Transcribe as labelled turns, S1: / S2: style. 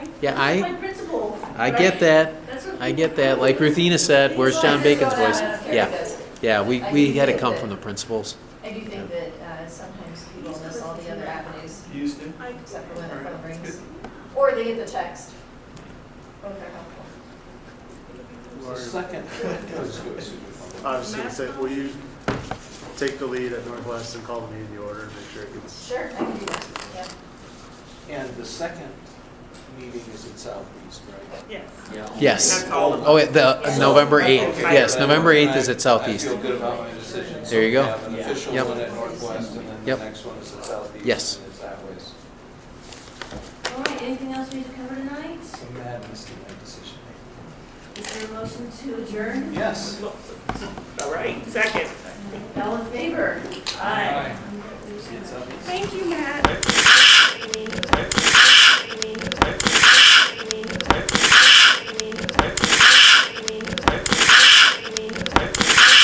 S1: Yeah,
S2: He's my
S1: I,
S2: principal.
S1: I get that,
S2: That's what-
S1: I get that. Like Ruthina said, where's John Bacon's voice? Yeah, yeah, we, we had it come from the principals.
S3: I do think that uh, sometimes people miss all the other avenues
S4: Used to?
S2: I-
S3: except for when the phone
S4: Alright, that's
S3: rings. Or they get the text. Both are helpful.
S5: The second,
S6: I was gonna say, will you take the lead at Northwest and call the meeting to order and make sure it gets,
S3: Sure, I can do that, yeah.
S5: and the second meeting is in Southeast, right?
S2: Yes.
S5: Yeah.
S1: Yes.
S4: all
S1: Oh, wait, the, November 8th,
S5: Okay.
S1: yes, November 8th is at
S5: I
S1: Southeast.
S5: feel good about my decision.
S1: There you go.
S5: So we have an official
S1: Yep.
S5: one at Northwest, and then the
S1: Yep.
S5: next one is at Southeast.
S1: Yes.
S5: And it's that way.
S2: All right, anything else we need to cover tonight?
S5: So madness in my decision
S2: Is there a motion to adjourn?
S5: making. Yes.
S7: All right, second.
S2: All in favor?
S5: Aye.
S7: Thank you, Matt. Amy.
S4: Right.